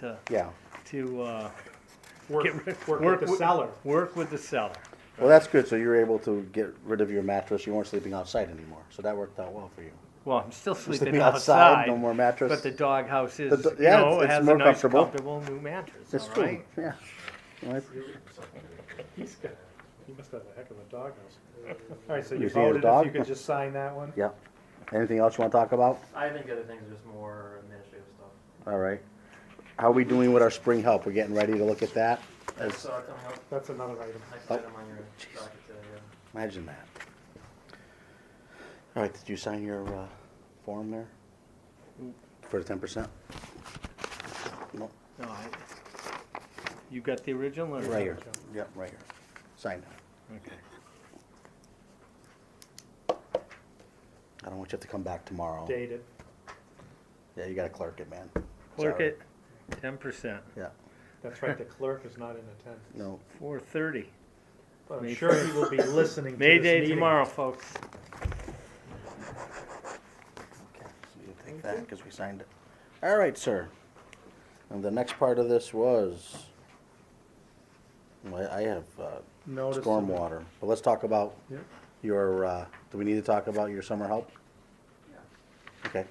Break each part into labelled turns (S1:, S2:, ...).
S1: to,
S2: yeah.
S1: to, uh,
S3: Work,
S1: Get
S3: work with the
S1: wi-
S3: seller.
S1: Work with the seller.
S2: Well, that's good, so you're able to get rid of your mattress, you weren't sleeping outside anymore, so that worked out well for you.
S1: Well, I'm still sleeping
S2: Sleeping outside,
S1: outside.
S2: no more mattress.
S1: But the doghouse is,
S2: The do-
S1: you
S2: yeah,
S1: know,
S2: it's-
S1: it
S2: it's
S1: has a
S2: more
S1: nice
S2: comfortable.
S1: comfortable new mattress,
S2: That's
S1: all right?
S2: true, yeah. Well, I-
S3: He's got, he must have a heck of a doghouse. All right, so you
S2: Is he a
S3: voted, if
S2: dog?
S3: you could just sign that one?
S2: Yeah. Anything else you wanna talk about?
S4: I think other things are just more administrative stuff.
S2: All right. How are we doing with our spring help? We're getting ready to look at that?
S4: That's uh, coming up
S3: That's another item.
S4: next
S2: Oh,
S4: item on your docket today. yeah.
S2: Imagine that. All right, did you sign your uh, form there? For the ten percent? No,
S1: No, I- You got the original or?
S2: right here. Yep, right here. Sign
S1: Okay.
S2: that. I don't want you to have to come back tomorrow.
S3: Dated.
S2: Yeah, you gotta clerk it, man.
S1: Clerk
S2: Sorry.
S1: it, ten percent,
S2: Yeah,
S3: That's right, the clerk is not in attendance.
S2: no.
S1: four thirty.
S3: But I'm
S1: May
S3: sure he will be listening to
S1: May
S3: this
S1: Day
S3: meeting.
S1: tomorrow, folks.
S2: Okay, so you take that, because we signed it. All right, sir. And the next part of this was, well, I I have uh,
S3: Notice of-
S2: stormwater, but let's talk about
S3: Yeah.
S2: your, uh, do we need to talk about your summer help?
S4: Yeah.
S2: Okay,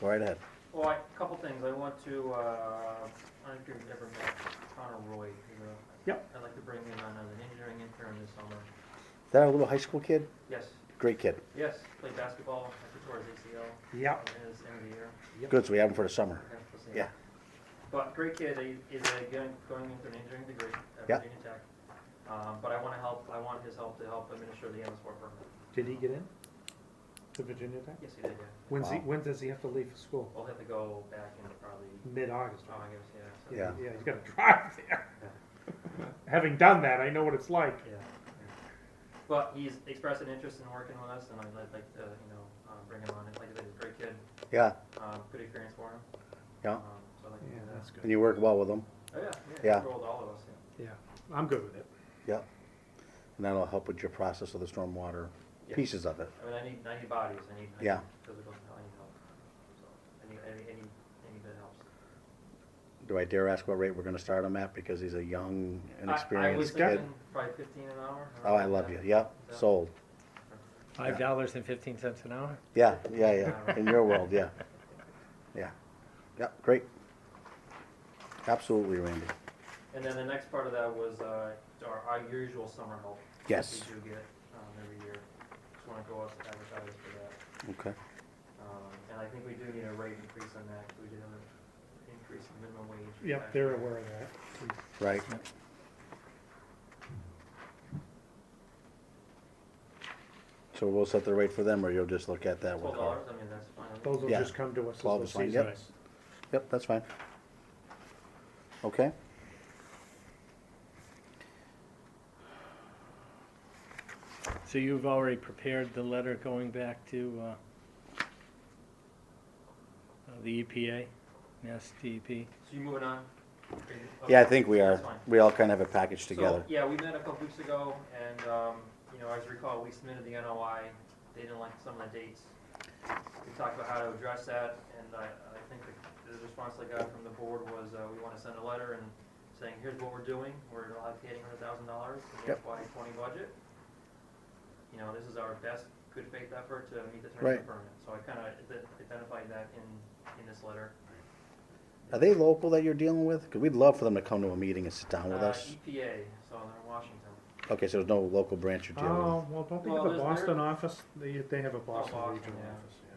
S2: go right ahead.
S4: Well, I- a couple things. I want to, uh, I don't know if you've ever met Connor Roy. who's a-
S3: Yep.
S4: I'd like to bring him on as an engineering intern this summer.
S2: That a little high school kid?
S4: Yes,
S2: Great kid.
S4: yes, played basketball, I tore his ACL
S3: Yeah.
S4: in his end of the year.
S2: Good, so we have him for the summer.
S4: Okay, we'll see.
S2: Yeah.
S4: But great kid, he is uh, going, going into an engineering degree at
S2: Yeah.
S4: Virginia Tech. Um, but I wanna help, I want his help to help administer the MS four permit.
S3: Did he get in? To Virginia Tech?
S4: Yes, he did, yeah.
S3: When's he,
S2: Wow.
S3: when does he have to leave for school?
S4: We'll have to go back in probably,
S3: Mid-August,
S4: oh,
S3: right?
S4: I guess, yeah. so-
S2: Yeah.
S3: Yeah, he's gotta drive there. Having done that, I know what it's like.
S4: Yeah. But he's expressed an interest in working with us, and I'd I'd like to, you know, um, bring him on. And Like I said, he's a great kid,
S2: Yeah,
S4: um, good experience for him.
S2: Yeah.
S4: Um, So I'd like to
S3: Yeah,
S4: do
S3: that's good.
S2: and you work well with him,
S4: that. Oh, yeah, yeah.
S2: Yeah.
S4: He rolled all of us, yeah.
S3: Yeah, I'm good with it.
S2: yeah. And that'll help with your process of the stormwater
S4: Yeah.
S2: pieces of it.
S4: I mean, I need, I need bodies, I need, I
S2: Yeah.
S4: need physical, I need help. So, any, any, any, any bit helps.
S2: Do I dare ask what rate we're gonna start him at, because he's a young,
S4: I- I was
S2: inexperienced kid?
S4: thinking probably fifteen an hour.
S2: Oh, I love you, yep,
S4: Yeah.
S2: sold.
S1: Five dollars and fifteen cents an hour?
S2: Yeah, yeah, yeah, in your world, yeah. Yeah, yeah, great. Absolutely, Randy.
S4: And then the next part of that was, uh, our, our usual summer help. that
S2: Yes.
S4: We do get, um, every year. Just wanna go out and advertise for that.
S2: Okay,
S4: Um, and I think we do need a rate increase on that, 'cause we did have an increase in minimum wage.
S3: Yep,
S4: back
S3: they're
S4: then.
S3: aware of that.
S2: right. So we'll set the rate for them, or you'll just look at that one?
S4: Twelve dollars, I mean, that's fine.
S3: Those will
S2: Yeah.
S3: just come to us
S2: Twelve
S3: as
S2: is
S3: the
S2: fine, yep.
S3: season.
S2: Yep, that's fine. Okay.
S1: So you've already prepared the letter going back to, uh, uh, the EPA, Mass DEP?
S4: So you moving on? Are you-
S2: Yeah, I
S4: okay,
S2: think we are,
S4: that's fine.
S2: we all kind of have a package
S4: So,
S2: together.
S4: Yeah, we met a couple weeks ago, and, um, you know, as you recall, we submitted the NOI, they didn't like some of the dates. We talked about how to address that, and I, I think the, the response I got from the board was, uh, we wanna send a letter and saying, here's what we're doing, we're allocating hundred thousand dollars in the
S2: Yep.
S4: FY twenty budget. You know, this is our best good faith effort to meet the terms
S2: Right.
S4: of permit, so I kinda ident- identified that in, in this letter.
S2: Are they local that you're dealing with? Because we'd love for them to come to a meeting and sit down with
S4: Uh,
S2: us.
S4: EPA, so they're in Washington.
S2: Okay, so there's no local branch you're dealing
S4: Um,
S2: with?
S3: Oh, well, don't they
S4: Well,
S3: have a
S4: there's-
S3: Boston office? They, they have a Boston
S4: Boston,
S3: regional
S4: yeah.
S3: office, yeah.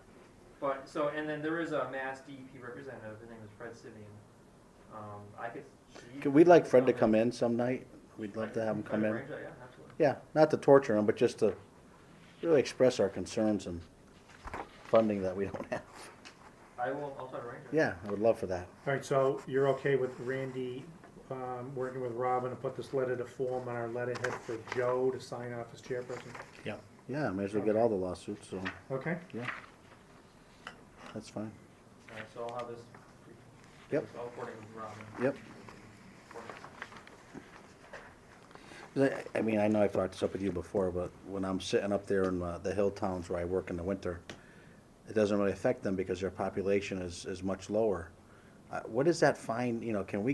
S4: But, so, and then there is a Mass DEP representative, his name is Fred Sivian. Um, I could. she-
S2: Could- We'd like Fred to come in some night. We'd love to have him
S4: Try
S2: come in.
S4: arrange that, Yeah, absolutely.
S2: Yeah, not to torture him, but just to really express our concerns and funding that we don't have.
S4: I will, I'll try to arrange it.
S2: Yeah, I would love for that.
S3: All right, so you're okay with Randy, um, working with Robin to put this letter to form on our letterhead for Joe to sign off as chairperson?
S1: Yeah.
S2: Yeah, I may as well get all the lawsuits, so,
S3: Okay,
S2: yeah. That's fine.
S4: Alright, Uh, so I'll have this.
S2: Yep.
S4: I'll coordinate with Robin.
S2: Yep. 'Cause I, I mean, I know I've brought this up with you before, but when I'm sitting up there in uh, the hill towns where I work in the winter, it doesn't really affect them because their population is, is much lower. uh, what is that fine, you know, can we